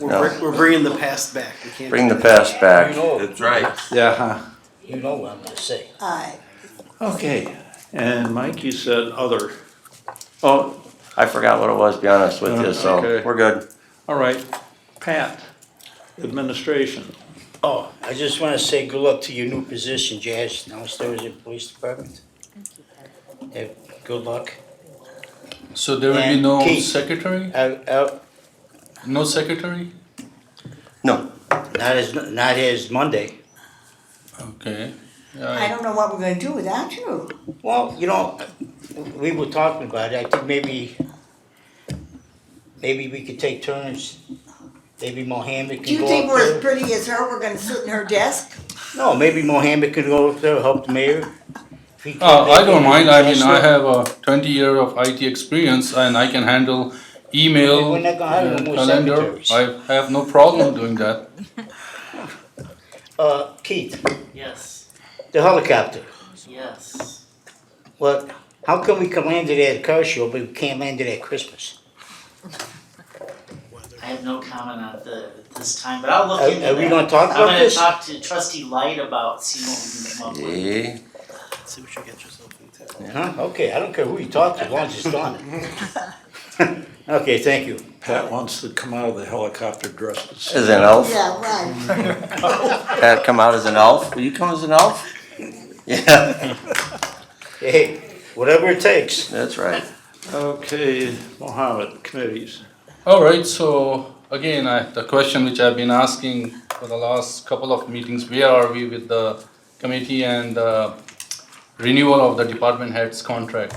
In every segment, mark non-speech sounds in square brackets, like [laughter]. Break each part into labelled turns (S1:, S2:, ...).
S1: We're, br- we're bringing the past back. We can't.
S2: Bring the past back.
S3: You know,
S4: That's right.
S5: Yeah, huh.
S3: you know what I'm gonna say.
S6: Aye.
S5: Okay, and Mike, you said other. Oh,
S2: I forgot what it was, be honest with you, so
S5: Okay.
S2: we're good.
S5: all right, Pat, administration.
S3: Oh, I just wanna say good luck to your new position, Jazz, downstairs at Police Department. Eh, Good luck.
S7: So there will be
S3: And
S7: no
S3: key.
S7: secretary?
S3: I, I,
S7: No secretary?
S2: No,
S3: not as, not as Monday.
S7: Okay.
S6: I
S7: I,
S6: don't know what we're gonna do without you.
S3: Well, you know, we were talking about it, I think maybe, maybe we could take turns. Maybe Mohammed
S6: Do
S3: can
S6: you
S3: go
S6: think
S3: up
S6: we're as
S3: there.
S6: pretty as her? We're gonna sit in her desk?
S3: No, maybe Mohammed can go up there, help the mayor. If he can-
S7: uh, I don't mind. I mean, I
S3: That's
S7: have a 20 year of IT experience and I can handle email, uh,
S3: We're not gonna hire no more
S7: calendar.
S3: secretaries.
S7: I have no problem doing that.
S3: Uh, Keith,
S8: Yes,
S3: the helicopter,
S8: yes.
S3: well, how come we can land it at a car show, but we can't land it at Christmas?
S8: I have no comment on the, this time, but I'll
S3: Are-
S8: look into that.
S3: are we gonna talk about this?
S8: I'm gonna talk to trustee Light about, see what we can come up with.
S2: eh,
S1: See what you get yourself into.
S3: Huh, okay, I don't care who you talk to, as long as it's done. [laughs] Okay, thank you.
S5: Pat wants to come out of the helicopter dressed
S2: as
S5: as.
S2: an
S3: Oh.
S2: elf.
S6: Yeah,
S3: Mm-hmm.
S6: right.
S2: Pat come out as an elf. Will you come as an elf? Yeah,
S3: Hey, whatever it takes.
S2: that's right.
S5: Okay, Mohammed, committees.
S7: All right, so again, I, the question which I've been asking for the last couple of meetings, where are we with the committee and uh, renewal of the department head's contract?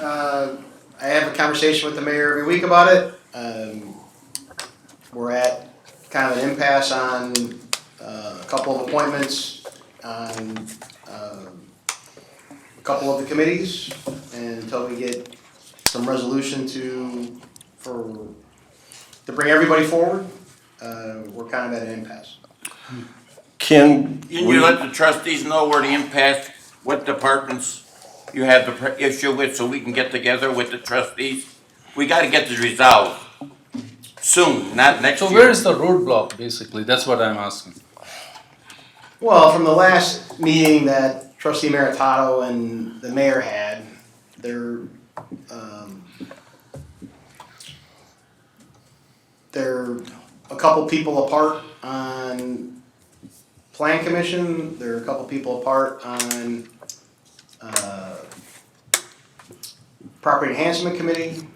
S9: Uh, I have a conversation with the mayor every week about it. Um, we're at kind of an impasse on uh, a couple of appointments, on um, a couple of the committees, and until we get some resolution to, for, to bring everybody forward, uh, we're kind of at an impasse.
S2: Can
S4: Can
S2: we,
S4: you let the trustees know where the impasse, what departments you have the pr- issue with, so we can get together with the trustees? We gotta get this resolved soon, not next
S7: So
S4: year.
S7: where is the roadblock, basically? That's what I'm asking.
S9: Well, from the last meeting that trustee Maritato and the mayor had, their, um, they're a couple people apart on plan commission, they're a couple people apart on, uh, property enhancement committee,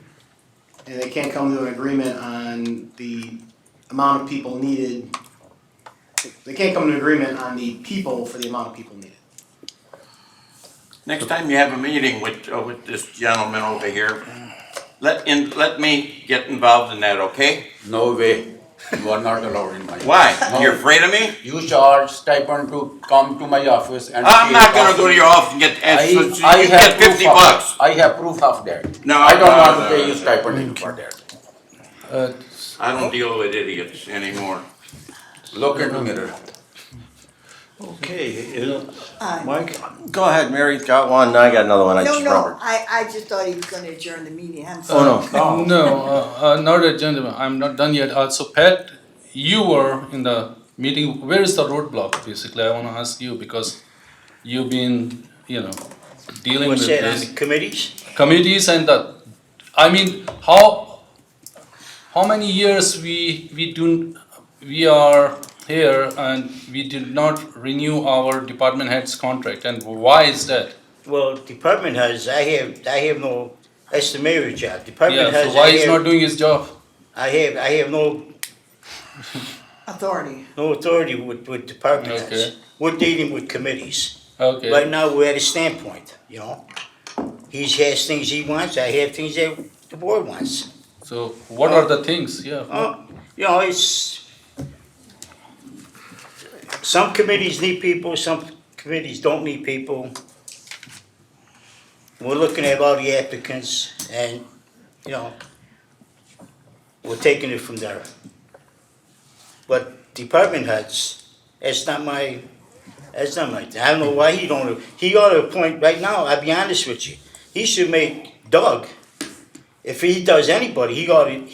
S9: and they can't come to an agreement on the amount of people needed they can't come to an agreement on the people for the amount of people needed.
S4: Next time you have a meeting with, uh, with this gentleman over here, let, in, let me get involved in that, okay?
S10: No way. You are not allowed in my.
S4: Why?
S10: No.
S4: You're afraid of me?
S10: You charge stipend to come to my office and.
S4: I'm
S10: pay
S4: not gonna go to your
S10: coffee.
S4: office and get,
S10: I,
S4: and so you
S10: I
S4: get
S10: have proof
S4: fifty
S10: of-
S4: bucks.
S10: I have proof of that.
S4: No,
S10: I don't
S4: no,
S10: want to
S4: no,
S10: pay you
S4: no.
S10: stipend for that.
S7: Uh,
S4: I don't deal with idiots anymore.
S10: Look in the mirror.
S5: Okay, is-
S6: Aye.
S5: Mike,
S2: go ahead, Mary's got one, and I got another one I
S6: Uh, No,
S2: just
S6: no,
S2: remembered.
S6: I, I just thought he was gonna adjourn the meeting. I'm sorry.
S2: Oh, no.
S5: Oh.
S7: No, uh, uh, not yet, gentlemen. I'm not done yet. Uh, so, Pat, you were in the meeting. Where is the roadblock, basically? I want to ask you because you've been, you know, dealing
S3: What's
S7: with
S3: that, on
S7: this.
S3: the committees?
S7: committees and the, I mean, how, how many years we, we do, we are here and we did not renew our department head's contract and why is that?
S3: Well, department has, I have, I have no, that's the mayor's job. Department
S7: Yeah,
S3: has,
S7: so
S3: I
S7: why he's not
S3: have,
S7: doing his job?
S3: I have, I have no,
S6: Authority.
S3: no authority with, with department heads.
S7: Okay.
S3: We're dealing with committees. Right
S7: Okay,
S3: now, we're at a standpoint, you know? He has things he wants, I have things that the board wants.
S7: so what
S2: uh,
S7: are the things, yeah?
S3: Oh, you know, it's, some committees need people, some committees don't need people. We're looking at all the applicants and, you know, we're taking it from there. But department heads, that's not my, that's not my, I don't know why he don't, he ought to appoint, right now, I'll be honest with you, he should make Doug, if he does anybody, he ought to,